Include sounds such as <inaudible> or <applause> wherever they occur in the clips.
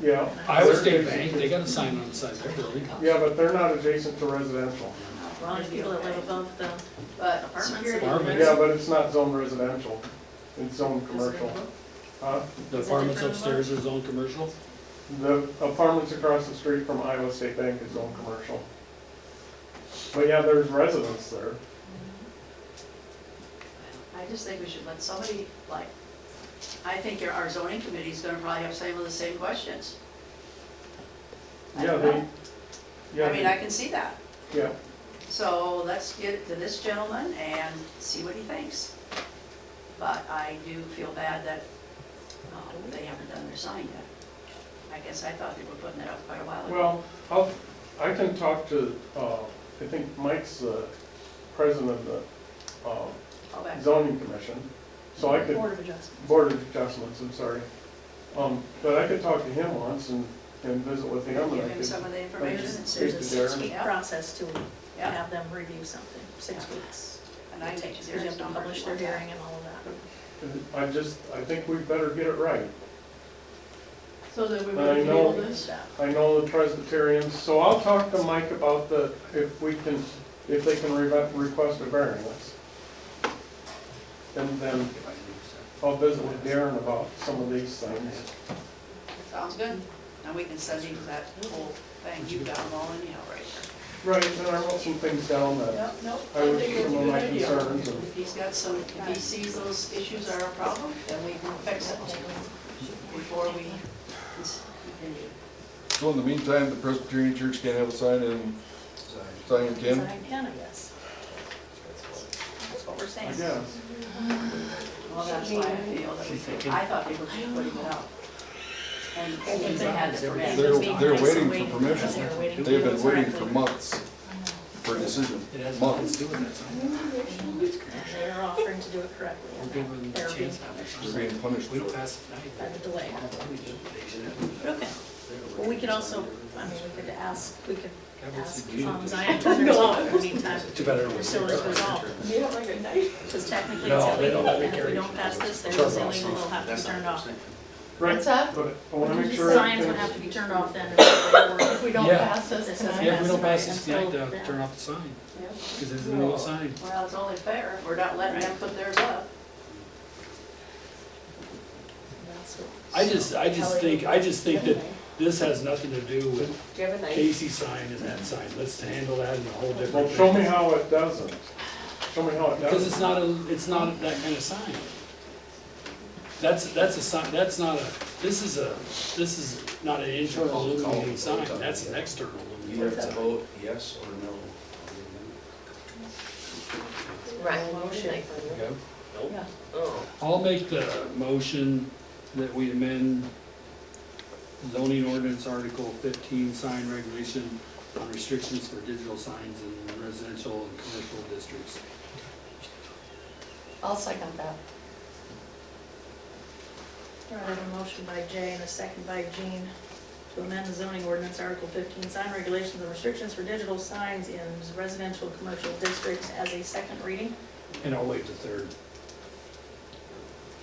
Yeah, Iowa State Bank, they got a sign on the side of their building. yeah, but they're not adjacent to residential. Well, there's people that live above the apartments. Apartments. Yeah, but it's not zoned residential, it's zoned commercial. Huh? The apartments upstairs are zoned commercial. The apartments across the street from Iowa State Bank is zoned commercial. But yeah, there's residents there. I just think we should let somebody, like, I think your- our zoning committee's gonna probably have some of the same questions. I Yeah, don't they, know. I mean, yeah, I can see that. they- yeah. So let's get it to this gentleman and see what he thinks. But I do feel bad that, oh, they haven't done their sign yet. I guess I thought they were putting that up quite a while ago. Well, I'll, I can talk to, uh, I think Mike's the president of the, um, All back. zoning commission, so I could. Board of Adjustments. Board of Adjustments, I'm sorry. Um, but I could talk to him once and, and visit with him, and Give I him some could, of the information and Speak see. There's to a Darren. six-week Yeah. process to Yeah. have them review something, six weeks. And I It take takes, because you Darren's have to number. publish their hearing and all of that. I just, I think we better get it right. So that we I would know. table this? I know the Presbyterians, so I'll talk to Mike about the, if we can, if they can re- request a variance. And then I'll visit with Darren about some of these things. Sounds good. And we can send you that whole thing. You've got them all anyhow right there. Right, and I wrote some things down that Yep, nope. I was, think it's a some of good my idea. concerns and If he's got some, if he sees those issues are a problem, then we can fix it before we continue. So in the meantime, the Presbyterian Church can't have a sign in Zion Because Ken? I can, I guess. That's what we're I saying. guess. Well, that's why I feel that we, I thought they were just putting it out. And if they had the permit. They're, they're waiting Waiting for for permission. us, they're waiting They've for been us. waiting for months for a decision, It has nothing to months. do with that sign. And they're offering to do it correctly. We're and giving them they're a being chance. They're being punished. We don't pass it By the delay. tonight. but- But Okay, well, we could also, I mean, we could ask, we could ask um, Zion No. Church in <laughs> the meantime, Too bad it was. until it's resolved. You have like a nice. Because technically No, it's they illegal, don't let and me if carry we it. don't pass this, then Turn it's it off. illegal, it'll have to be turned off. Right, What's that? but I wanna make sure. Signs would have to be turned off then. if <laughs> If they we don't Yeah. pass It this says tonight. Yeah, if we don't pass this Until tonight, they'll then. turn off the sign, Yeah. because there's no sign. Well, it's only fair. We're not letting them put theirs up. were- that's what- I just, I just think, I just think that this has nothing to do with Do you have a nice? Casey's sign and that sign. Let's handle that in a whole Well, different show me way. how it doesn't. Show me how it Because it's doesn't. not a, it's not that kind of sign. That's, that's a sign, that's not a, this is a, this is not an internal illuminating sign, that's an external You have illuminating to sign. vote yes or no. on Right, motion. Okay. Oh. I'll make the motion that we amend zoning ordinance article fifteen sign regulation on restrictions for digital signs in residential and commercial districts. I'll second that. All right, I have a motion by Jay and a second by Jean to amend the zoning ordinance, Article 15, sign regulations and restrictions for digital signs in residential and commercial districts as a second reading And I'll waive the third.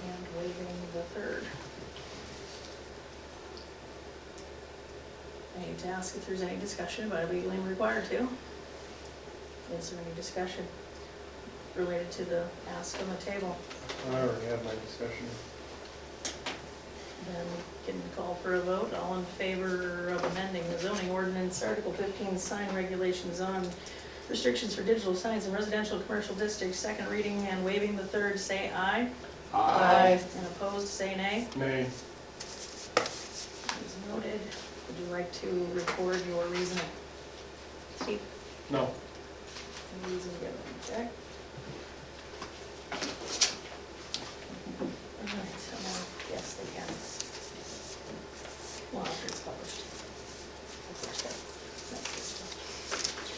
and waiving the third. I need to ask if there's any discussion, but I legally am required to. Is there any discussion related to the ask on the table? I already had my discussion. Then we can call for a vote, all in favor of amending the zoning ordinance, Article 15, sign regulations on restrictions for digital signs in residential and commercial districts, second reading and waiving the third, say aye. Aye. And opposed, say nay. Nay, Is noted. Would you like to record your reason? Keep no. the reason given, okay? All right, so now, yes, they can. Well, after it's published. Of course, that- that's good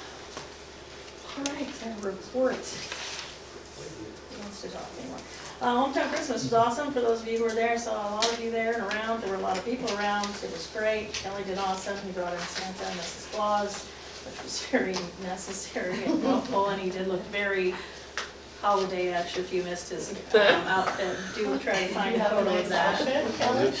stuff. All right, and report. Who wants to talk anymore? Uh, Hometown Christmas was awesome, for those of you who were there, saw a lot of you there and around, there were a lot of people around, it was great. Kelly did awesome, he brought in Santa and Mrs. Claus, which was very <laughs> necessary and helpful, and he did look very holiday-ish if you missed his um, outfit. Do try to find a photo of that. Outfit, Kelly?